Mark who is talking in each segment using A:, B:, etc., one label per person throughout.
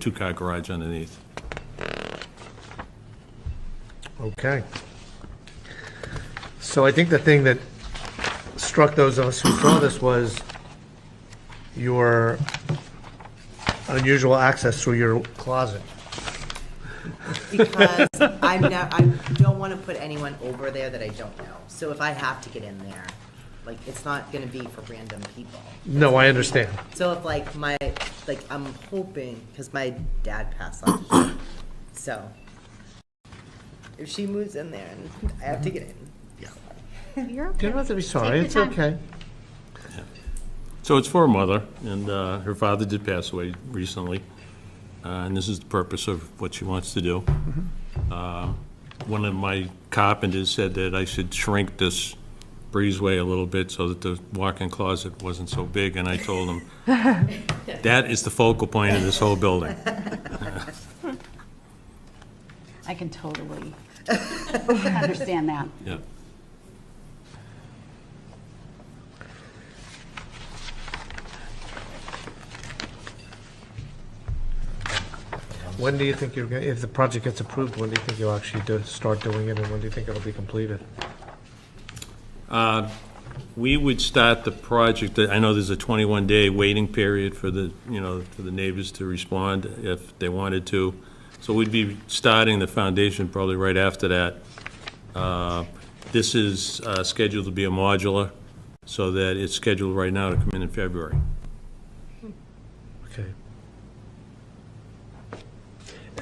A: two-car garage underneath.
B: Okay. So I think the thing that struck those of us who saw this was your unusual access through your closet.
C: because I'm not, I don't want to put anyone over there that I don't know. So if I have to get in there, like, it's not gonna be for random people.
B: No, I understand.
C: So if like my, like, I'm hoping, because my dad passed last year, so if she moves in there and I have to get in.
D: You're
B: You
D: okay.
B: don't have to be sorry,
D: Take
B: it's
D: your time.
B: okay.
A: So it's for a mother, and uh, her father did pass away recently, uh, and this is the purpose of what she wants to do. Uh, One of my carpenters said that I should shrink this breezeway a little bit so that the walk-in closet wasn't so big, and I told him, that is the focal point of this whole building.
D: I can totally understand that.
A: Yeah.
B: When do you think you're, gonna if the project gets approved, when do you think you'll actually do, start doing it, and when do you think it'll be completed?
A: We would start the project, I know there's a 21-day waiting period for the, you know, for the neighbors to respond if they wanted to. So we'd be starting the foundation probably right after that. Uh, This is uh, scheduled to be a modular, so that it's scheduled right now to come in in February.
B: Okay.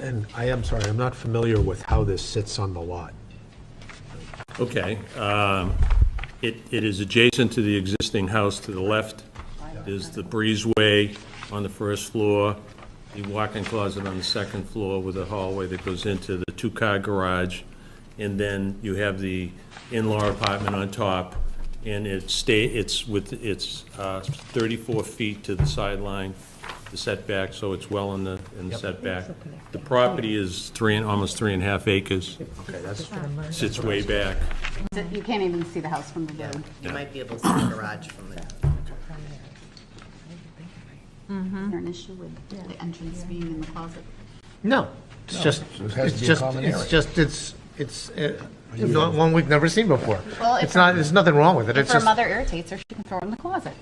E: And I am sorry, I'm not familiar with how this sits on the lot.
A: Okay. um, It, it is adjacent to the existing house to the left. There's the breezeway on the first floor, the walk-in closet on the second floor with a hallway that goes into the two-car garage, and then you have the in-law apartment on top, and it stay, it's with, it's uh, 34 feet to the sideline, the setback, so it's well in the, in the setback. The property is three, and almost three and a half acres,
E: Okay, that's,
A: sits way back.
D: So You can't even see the house from the road.
C: You might be able to see the garage from the,
D: Is there an issue with the entrance being in the closet?
B: No, it's just,
E: it has to
B: it's
E: be a
B: just,
E: common
B: it's
E: area.
B: just, it's, it's uh, not one we've never seen before.
D: Well,
B: It's
D: if-
B: not, there's nothing wrong with it,
D: If
B: it's
D: her
B: just,
D: mother irritates her, she can throw it in the closet.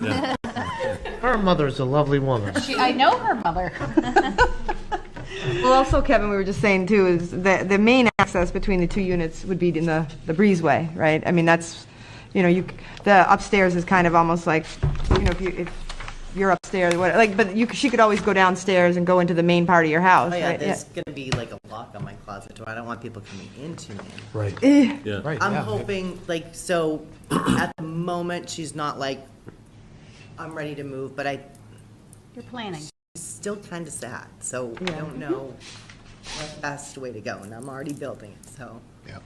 A: Yeah.
B: her mother's a lovely woman.
D: She, I know her mother.
F: Well, also, Kevin, we were just saying too, is that the main access between the two units would be in the, the breezeway, right? I mean, that's, you know, you, c- the upstairs is kind of almost like, you know, if you, if you're upstairs, what, like, but you, c- she could always go downstairs and go into the main part of your house,
C: oh yeah,
F: right?
C: there's gonna be like a lock on my closet door. I don't want people coming into me.
E: right.
D: Eh,
A: Yeah.
E: Right,
C: I'm
E: yeah.
C: hoping, like, so at the moment, she's not like, I'm ready to move, but I,
D: You're planning.
C: still kind of sad, so I don't know what best way to go, and I'm already building it, so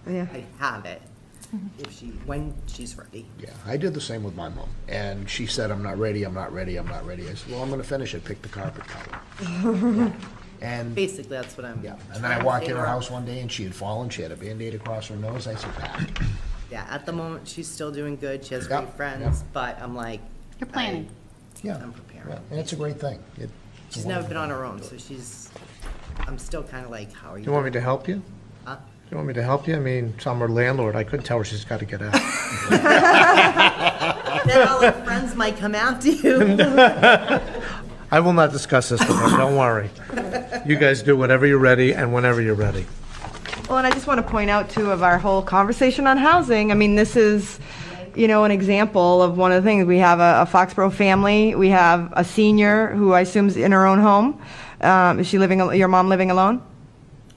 F: Yeah.
C: I have it if she, when she's ready.
G: Yeah, I did the same with my mom, and she said, "I'm not ready. I'm not ready. I'm not ready." I said, "Well, I'm going to finish it. Pick the carpet color." and
C: Basically, that's what I'm.
G: yeah, and then I walked in her house one day, and she had fallen. She had a band-aid across her nose. I said, "Ah."
C: Yeah, at the moment, she's still doing good, she has
G: Yep,
C: great friends, but I'm like.
D: You're planning.
G: "Yeah,
C: I'm prepared.
G: yeah, And it's a great thing. It,
C: I- She's never been on her own, so she's, I'm still kind of like, how are you?
B: You want me to help you?
D: Uh.
C: Huh?
B: You want me to help you? I mean, so I'm her landlord, I couldn't tell her she's got to get out.
C: Then all her friends might come after you.
B: I will not discuss this with her, don't worry. You guys do whatever you're ready and whenever you're ready.
F: Well, and I just want to point out too of our whole conversation on housing. I mean, this is, you know, an example of one of the things. We have a, a Foxborough family. We have a senior who I assume is in her own home. Um, is she living? al- Your mom living alone?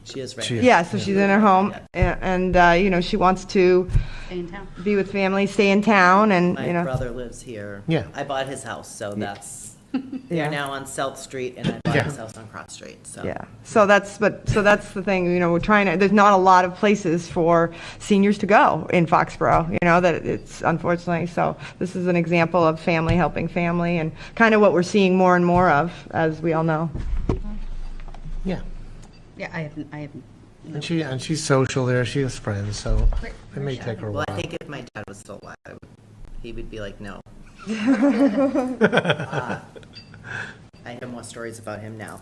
C: She is
B: She
C: ready.
B: is.
F: Yeah. So she's in her home, a- and uh, you know, she wants to
D: Stay in town.
F: be with family, stay in town, and you
C: My
F: know,
C: brother lives here.
B: Yeah.
C: I bought his house, so that's,
F: Yeah.
C: they're now on South Street, and I bought his house on Cross Street, so.
F: yeah. So that's but so that's the thing. You know, we're trying to. There's not a lot of places for seniors to go in Foxborough. You know that it's unfortunately. So this is an example of family helping family, and kind of what we're seeing more and more of, as we all know.
B: Yeah,
D: Yeah, I haven't, I haven't.
B: and she, and she's social there, she has friends, so it may take her a
C: Well,
B: while.
C: I think if my dad was still alive, I would, he would be like, no. Uh, I have more stories about him now.